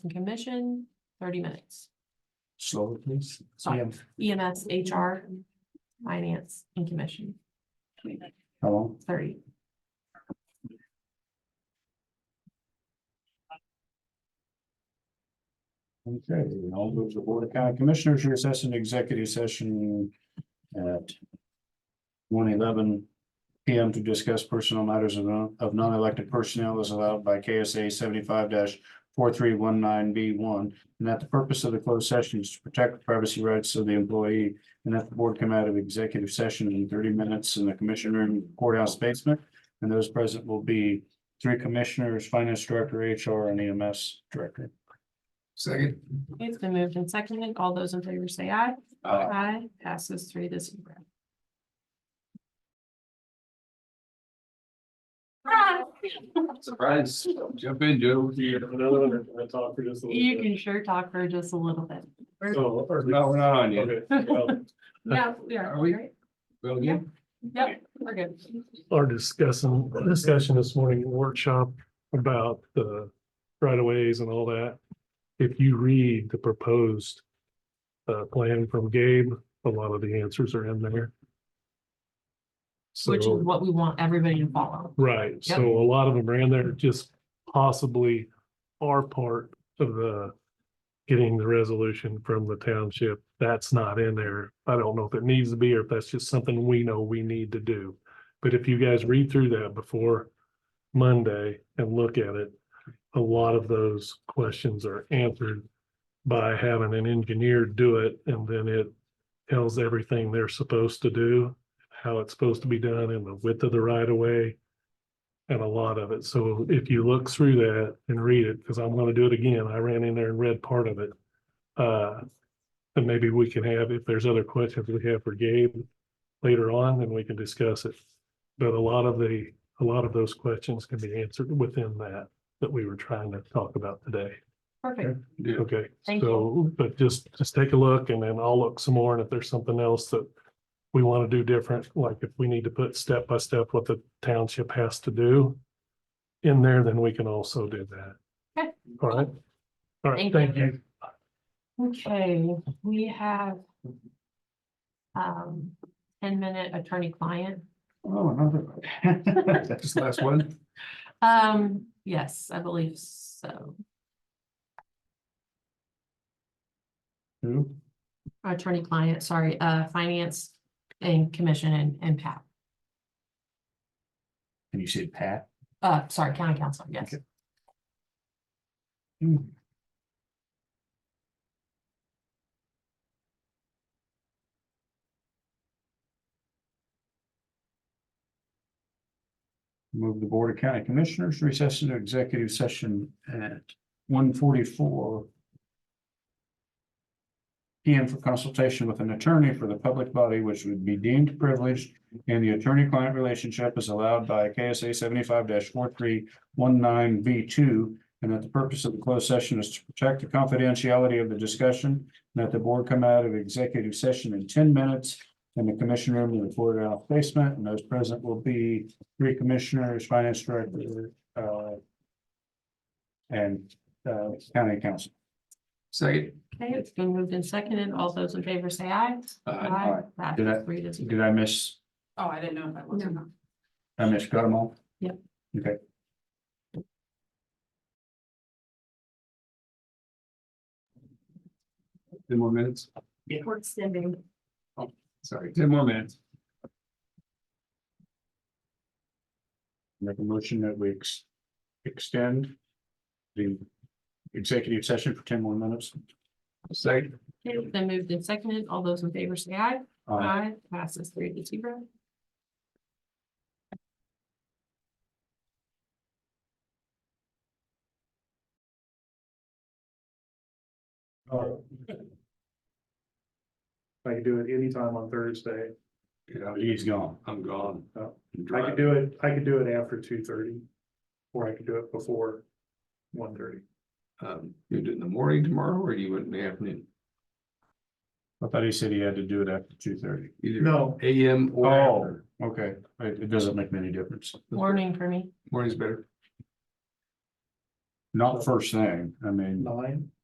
and commission, thirty minutes. E Slow, please. Sorry. Ma'am, EMS, HR, finance and commission, How long? thirty. Okay, I'll move the Board of County Commissioners recess into executive session at one eleven P M to discuss personal matters of non- of non-elected personnel as allowed by K S A seventy-five four three one nine B one. And that the purpose of the closed session is to protect the privacy rights of the employee. And that the board come out of executive session in thirty minutes in the commission room courthouse basement. And those present will be three commissioners, finance director, H R, and E M S director. Second. It's been moved and seconded. All those in favor say aye. Aye. passes three to zero. Surprise, jump in, Joe. You can sure talk for just a little bit. No, we're not on yet. Yeah, we are. Are we- right? Well, again, Yep, we're good. our discussing, discussion this morning at workshop about the right of ways and all that. If you read the proposed uh, plan from Gabe, a lot of the answers are in there. Which is So, what we want everybody to follow. right, so a lot of them are in there, just possibly are part of the getting the resolution from the township. That's not in there. I don't know if it needs to be or if that's just something we know we need to do. But if you guys read through that before Monday and look at it, a lot of those questions are answered by having an engineer do it and then it tells everything they're supposed to do, how it's supposed to be done and the width of the right of way and a lot of it. So if you look through that and read it, because I'm going to do it again, I ran in there and read part of it. Uh, and maybe we can have, if there's other questions we have for Gabe later on, then we can discuss it. But a lot of the, a lot of those questions can be answered within that, that we were trying to talk about today. Perfect. yeah, Okay, Thank so, but just, just take a look and then I'll look some more and if there's something else that we want to do different, like if we need to put step by step what the township has to do in there, then we can also do that. Okay. All right. All right, Thank you. thank you. Okay, we have um, ten minute attorney client. Oh, another. one. That's the last one. Um, yes, I believe so. Who? Attorney client, sorry, uh, finance and commission and, and Pat, And you said Pat? uh, sorry, county council, yes. Okay. Move the Board of County Commissioners recess into executive session at one forty-four PM for consultation with an attorney for the public body which would be deemed privileged and the attorney-client relationship is allowed by KSA seventy-five four three one nine B two and that the purpose of the closed session is to protect the confidentiality of the discussion and that the board come out of executive session in ten minutes in the commission room in the courthouse basement and those present will be three commissioners, finance director, uh, and, uh, county council. Second. Okay, it's been moved and seconded. All those in favor say aye. Uh, Aye. That Did I- is three to zero. Did I miss, Oh, I didn't know if that was. No. or not. I missed them all? Yep. Okay. ten more minutes, We're extending. sorry, ten more minutes. Make a motion that we ex- extend the executive session for ten more minutes. Second. Okay, it's been moved and seconded. All those in favor say aye. Uh, Aye. Passes three to zero. I can do it anytime on Thursday. Yeah, he's gone. I'm gone. Oh. I'm I driving. could do it, I could do it after two thirty, or I could do it before one thirty. Um, you do it in the morning tomorrow or you would in the afternoon? I thought he said he had to do it after two thirty. Either No, AM or Oh, after. okay. It, it doesn't make any difference. Morning for me. Morning's better. Not first thing, I mean, nine.